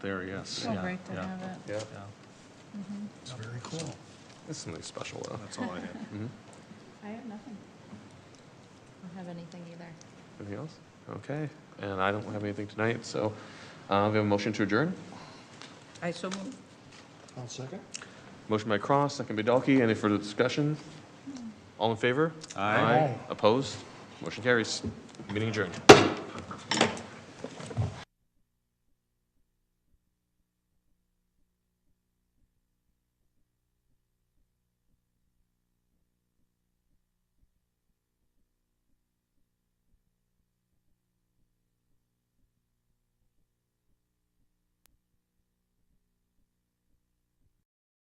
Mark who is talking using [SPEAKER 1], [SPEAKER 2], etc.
[SPEAKER 1] there, yes.
[SPEAKER 2] Oh,
[SPEAKER 1] yeah,
[SPEAKER 2] great to
[SPEAKER 1] yeah,
[SPEAKER 2] have it.
[SPEAKER 3] Yeah,
[SPEAKER 1] yeah.
[SPEAKER 4] It's very cool.
[SPEAKER 3] that's something special though.
[SPEAKER 1] That's all I had.
[SPEAKER 3] Mhm.
[SPEAKER 2] I have nothing.
[SPEAKER 5] I don't have anything either.
[SPEAKER 3] Anything else? Okay, and I don't have anything tonight, so uh, we have a motion to adjourn.
[SPEAKER 6] I so move.
[SPEAKER 4] I'll second.
[SPEAKER 3] Motion by Cross, second by Dalkey. Any further discussion? All in favor?
[SPEAKER 1] Aye.
[SPEAKER 3] Opposed? Motion carries. Meeting adjourned.